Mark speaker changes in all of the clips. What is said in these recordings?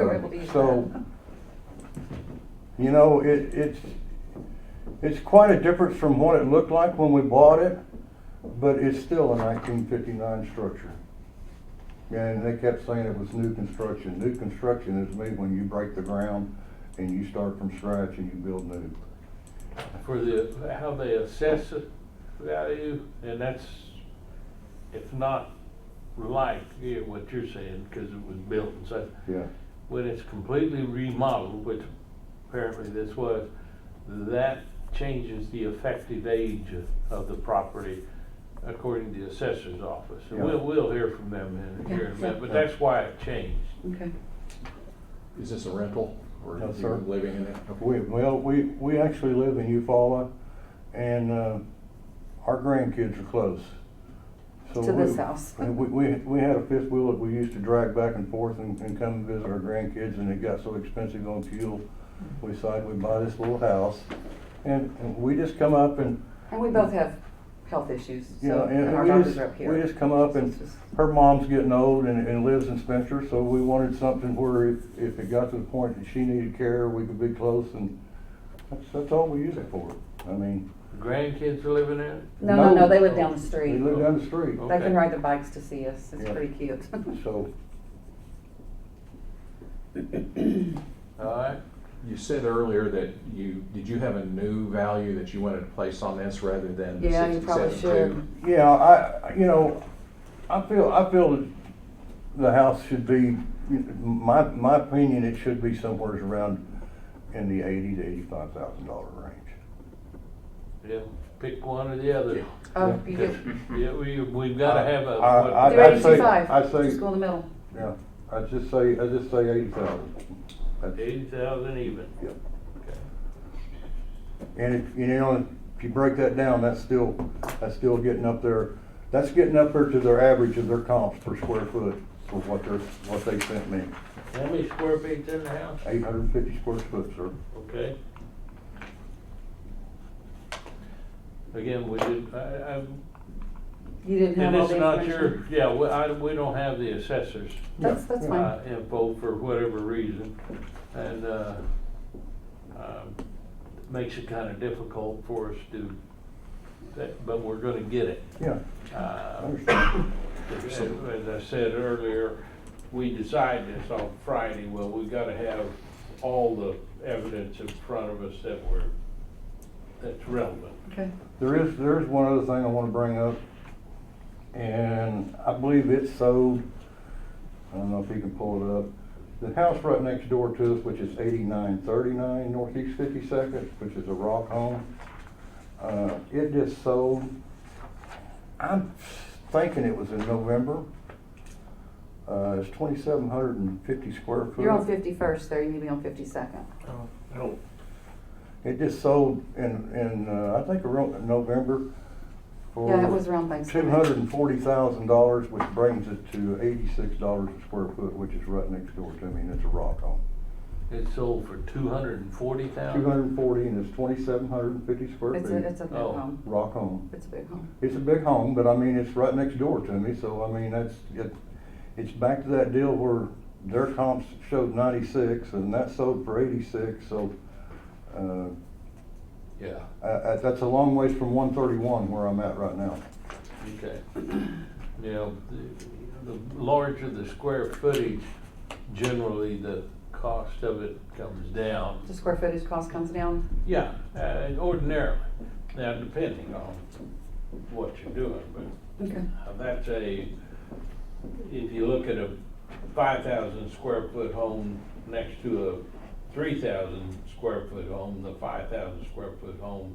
Speaker 1: able to use
Speaker 2: Um, So,
Speaker 1: that.
Speaker 2: you know, it, it's, it's quite a difference from what it looked like when we bought it, but it's still a nineteen fifty-nine structure. And they kept saying it was new construction. New construction is made when you break the ground and you start from scratch and you build new.
Speaker 3: for the, how they assess it value, and that's, it's not like yeah, what you're saying, because it was built and such.
Speaker 2: Yeah,
Speaker 3: When it's completely remodeled, which apparently this was, that changes the effective age of- of the property according to the assessor's office. And
Speaker 2: Yeah.
Speaker 3: we'll, we'll hear from them in here in a minute, but
Speaker 2: Yeah.
Speaker 3: that's why it changed.
Speaker 1: Okay.
Speaker 4: Is this a rental or
Speaker 2: No,
Speaker 4: are
Speaker 2: sir.
Speaker 4: you living in it?
Speaker 2: we, well, we, we actually live in Eufaula and, uh, our grandkids are close. So
Speaker 1: To this
Speaker 2: we-
Speaker 1: house.
Speaker 2: And we, we, we had a fifth wheel that we used to drag back and forth and, and come and visit our grandkids, and it got so expensive on fuel. We decided we'd buy this little house, and, and we just come up and,
Speaker 1: And we both have health issues,
Speaker 2: you know,
Speaker 1: so, and
Speaker 2: and
Speaker 1: our
Speaker 2: we
Speaker 1: doctors are up
Speaker 2: just,
Speaker 1: here.
Speaker 2: we just come up and
Speaker 1: It's just-
Speaker 2: her mom's getting old and, and lives in Spencer, so we wanted something where if, if it got to the point that she needed care, we could be close, and that's, that's all we use it for. I mean.
Speaker 3: Grandkids are living in it?
Speaker 1: No, no, no, they live down the
Speaker 2: They
Speaker 1: street.
Speaker 2: live down the street,
Speaker 1: They can
Speaker 3: Okay.
Speaker 1: ride their bikes to see us, it's
Speaker 2: Yeah.
Speaker 1: pretty cute.
Speaker 2: so,
Speaker 3: All right?
Speaker 4: You said earlier that you, did you have a new value that you wanted to place on this rather than the
Speaker 1: Yeah, you probably
Speaker 4: sixty-seven
Speaker 2: Yeah, I, I- you know, I feel, I feel that the house should be, my, my opinion, it should be somewhere around in the eighty to eighty-five thousand dollar range.
Speaker 3: Yeah, pick one or the other.
Speaker 1: Oh, you get,
Speaker 3: Yeah, we, we've gotta have a.
Speaker 2: Uh, I- I-
Speaker 1: do
Speaker 2: I'd say-
Speaker 1: eighty-two-five,
Speaker 2: I'd say-
Speaker 1: just go in the middle.
Speaker 2: Yeah, I just say, I just say eighty thousand.
Speaker 3: Eighty thousand even.
Speaker 2: Yep.
Speaker 3: Okay.
Speaker 2: And if, you know, if you break that down, that's still, that's still getting up there, that's getting up there to their average of their comps per square foot for what they're, what they sent me.
Speaker 3: How many square feet's in the house?
Speaker 2: Eight hundred and fifty square foot, sir.
Speaker 3: Okay. Again, we did, I, I,
Speaker 1: You didn't have
Speaker 3: and
Speaker 1: all
Speaker 3: it's
Speaker 1: the
Speaker 3: not your,
Speaker 1: information.
Speaker 3: yeah, we, I, we don't have the assessors,
Speaker 1: That's, that's
Speaker 2: Yeah.
Speaker 1: fine.
Speaker 3: uh, info for whatever reason. And, uh, um, makes it kinda difficult for us to, that, but we're gonna get it.
Speaker 2: Yeah, I
Speaker 3: Uh,
Speaker 2: understand.
Speaker 3: As as I said earlier, we decide this on Friday, well, we gotta have all the evidence in front of us that we're, that's relevant.
Speaker 1: Okay.
Speaker 2: There is, there is one other thing I wanna bring up, and I believe it's sold, I don't know if you can pull it up. The house right next door to us, which is eighty-nine thirty-nine Northeast Fifty-second, which is a rock home, uh, it just sold. I'm thinking it was in November. Uh, it's twenty-seven hundred and fifty square foot.
Speaker 1: You're on fifty-first there, you need to be on fifty-second.
Speaker 2: Oh.
Speaker 3: No.
Speaker 2: It just sold in, in, uh, I think around November
Speaker 3: Oh.
Speaker 2: for.
Speaker 1: Yeah, it was around
Speaker 2: Two
Speaker 1: Thanksgiving.
Speaker 2: hundred and forty thousand dollars, which brings it to eighty-six dollars a square foot, which is right next door to me, and it's a rock home.
Speaker 3: It sold for two hundred and forty
Speaker 2: Two
Speaker 3: thousand?
Speaker 2: hundred and forty, and it's twenty-seven hundred and fifty square
Speaker 1: It's a, it's
Speaker 2: feet.
Speaker 1: a big
Speaker 3: Oh.
Speaker 1: home,
Speaker 2: Rock home.
Speaker 1: it's a big home.
Speaker 2: It's a big home, but I mean, it's right next door to me, so I mean, that's, it, it's back to that deal where their comps showed ninety-six, and that sold for eighty-six, so, uh,
Speaker 3: Yeah,
Speaker 2: uh, uh, that's a long ways from one thirty-one where I'm at right now.
Speaker 3: okay. Now, the, the larger the square footage, generally the cost of it comes down.
Speaker 1: The square footage cost comes down,
Speaker 3: Yeah, uh, ordinarily, now depending on what you're doing, but
Speaker 1: okay.
Speaker 3: Now, That's a, if you look at a five thousand square foot home next to a three thousand square foot home, the five thousand square foot home,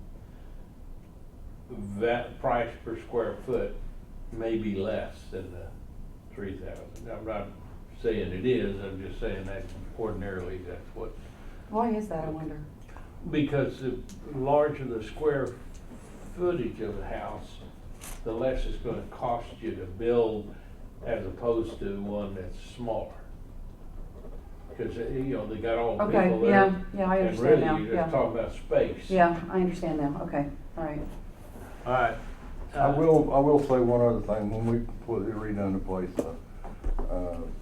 Speaker 3: that price per square foot may be less than the three thousand. I'm not saying it is, I'm just saying that ordinarily that's what,
Speaker 1: Why is that, I wonder?
Speaker 3: because the larger the square footage of the house, the less it's gonna cost you to build as opposed to one that's smaller. Cause, eh, you know, they got all the
Speaker 1: Okay,
Speaker 3: people there.
Speaker 1: yeah, yeah, I understand now,
Speaker 3: And really, you're
Speaker 1: yeah.
Speaker 3: just talking about space.
Speaker 1: Yeah, I understand now, okay, all right.
Speaker 3: Alright.
Speaker 2: I will, I will say one other thing, when we completely redone the place, uh, uh,